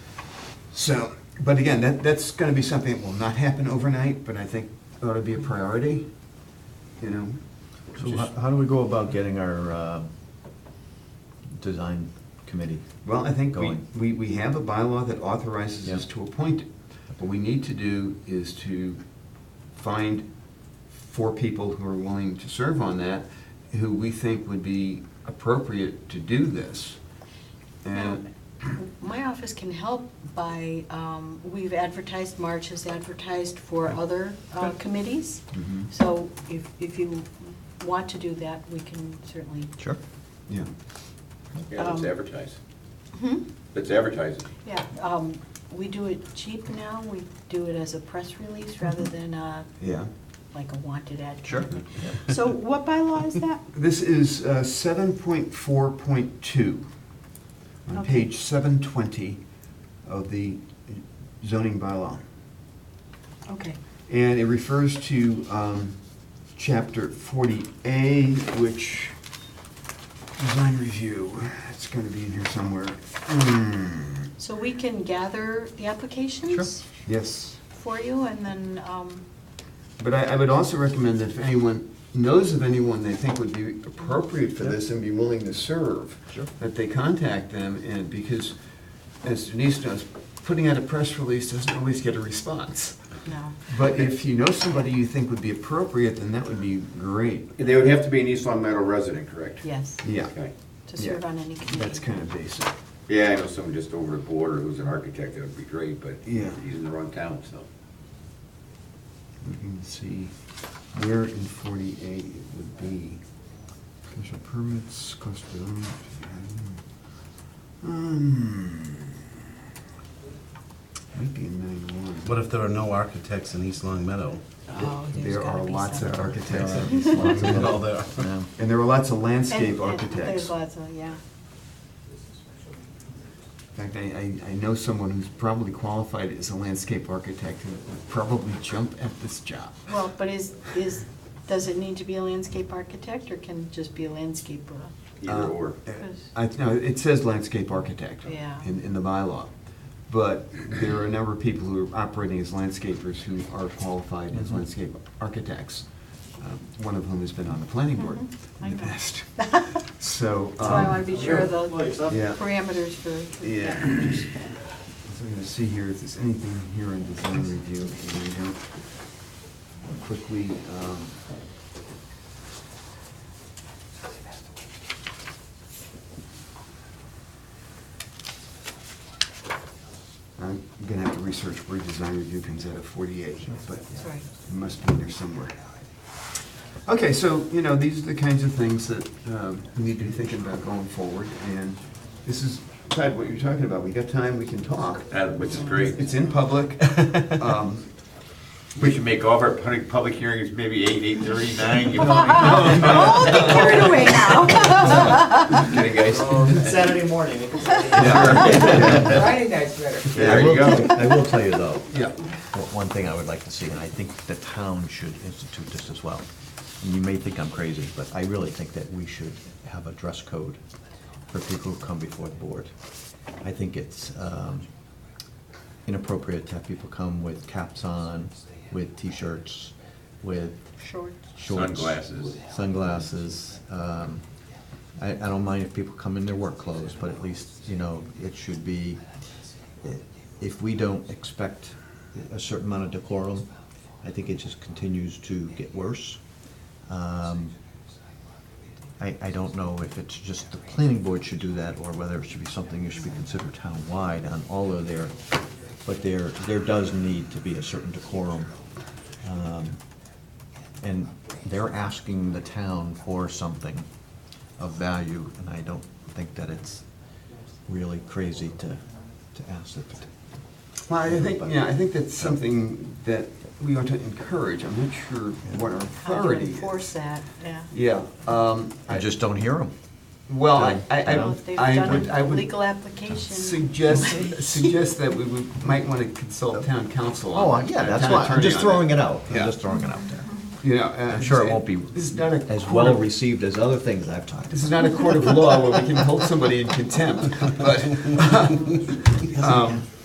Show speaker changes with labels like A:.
A: So, but again, that, that's gonna be something that will not happen overnight, but I think ought to be a priority, you know?
B: So how,
A: Just-
B: how do we go about getting our, uh, design committee?
A: Well, I think we,
B: Going.
A: we, we have a bylaw that authorizes us
B: Yeah.
A: to appoint it. What we need to do is to find four people who are willing to serve on that, who we think would be appropriate to do this. And,
C: My office can help by, um, we've advertised, March has advertised for other uh, committees.
A: Mhm.
C: So if, if you want to do that, we can certainly.
B: Sure.
A: yeah,
D: Yeah, let's
C: Um,
D: advertise.
C: Hmm?
D: Let's advertise it.
C: Yeah, um, we do it cheap now. We do it as a press release rather than uh,
A: yeah.
C: like a wanted ad.
B: Sure.
C: So what bylaw is that?
A: This is uh, seven point four point two, on
C: Okay.
A: page seven twenty of the zoning bylaw.
C: Okay.
A: And it refers to um, chapter 40A, which, design review, it's going to be in here somewhere. Hmm,
C: So we can gather the applications
A: Yes,
C: for you and then, um,
A: but I I would also recommend that if anyone knows of anyone they think would be appropriate for this and be willing to serve,
B: Sure.
A: that they contact them, and because, as Denise knows, putting out a press release doesn't always get a response.
C: no.
A: But if you know somebody you think would be appropriate, then that would be great,
D: They would have to be an East Long Meadow resident, correct?
C: Yes,
A: yeah.
D: Okay.
C: to serve
A: Yeah.
C: on any committee.
A: That's kind of basic.
D: Yeah, I know someone just over the border who's an architect, that would be great, but
A: Yeah.
D: he's in the wrong town, so.
A: We can see where in forty-eight it would be. Special permits, cost of development. Hmm. Might be in nine
E: What if there are no architects in East Long Meadow?
C: Oh,
A: one.
C: there's
A: There are
C: gotta be
A: lots of
C: something.
A: architects.
B: There are
A: in Slough.
E: No, there are.
B: Yeah.
A: And there are lots of
C: And-
A: landscape
C: and There's
A: architects. In
C: lots of, yeah.
A: fact, I, I, I know someone who's probably qualified as a landscape architect who would probably jump at this job.
C: Well, but is, is, does it need to be a landscape architect or can it just be a landscaper?
D: Either or.
A: Uh,
C: Because-
A: I, no, it says landscape architect.
C: Yeah.
A: In, in the bylaw. But there are a number of people who are operating as landscapers who are qualified
D: Mm-hmm.
A: as landscape architects. um, One of whom has been on the planning board
C: Mhm, I
A: in the
C: know.
A: past.
C: So
A: So.
C: I
A: um,
C: want to be sure of the
A: Yeah.
C: parameters for. for-
A: Yeah. So I'm gonna see here if there's anything here on design review, and I don't quickly, um. I'm gonna have to research where design review comes out of forty-eight, but
C: Sorry.
A: it must be in there somewhere. Okay, so, you know, these are the kinds of things that um, we need to be thinking about going forward, and this is, Ted, what you're talking about, we got time, we can talk.
D: Uh, Which is great.
A: It's in public. Um,
D: We should make all of our public, public hearings maybe eight, eight thirty, nine, you know?
C: Oh, get carried away now.
D: Kidding, guys?
F: Saturday morning. Friday night's better.
D: There you go.
B: I will tell you though,
A: Yeah,
B: one- one thing I would like to see, and I think the town should institute this as well. And you may think I'm crazy, but I really think that we should have a dress code for people who come before the board. I think it's um, inappropriate to have people come with caps on, with t-shirts, with
C: Short.
B: shorts.
D: Sunglasses.
B: Sunglasses. Um, I, I don't mind if people come in their work clothes, but at least, you know, it should be, if we don't expect a certain amount of decorum, I think it just continues to get worse. Um, I, I don't know if it's just the planning board should do that, or whether it should be something that should be considered town-wide on all of their, but there, there does need to be a certain decorum. Um, And they're asking the town for something of value, and I don't think that it's really crazy to, to ask it.
A: well, I think, yeah, I think that's something that we ought to encourage. I'm not sure what our
C: How to
A: authority is.
C: enforce that, yeah.
A: Yeah, um,
B: I
A: I
B: just don't hear them.
A: well, I, I,
C: I don't know if they've
A: I
C: done
A: would,
C: a
A: I would
C: Legal application.
A: suggest, suggest that we would, might want to consult town council
B: Oh,
A: on.
B: I- yeah, that's why, I'm just throwing it out, I'm
A: Yeah.
B: just throwing it out there.
A: You know. uh,
B: I'm sure it won't be
A: This is not a
B: as
A: court
B: well
A: of-
B: received as other things I've talked
A: This is
B: about.
A: not a court of law where we can hold somebody in contempt, but, um,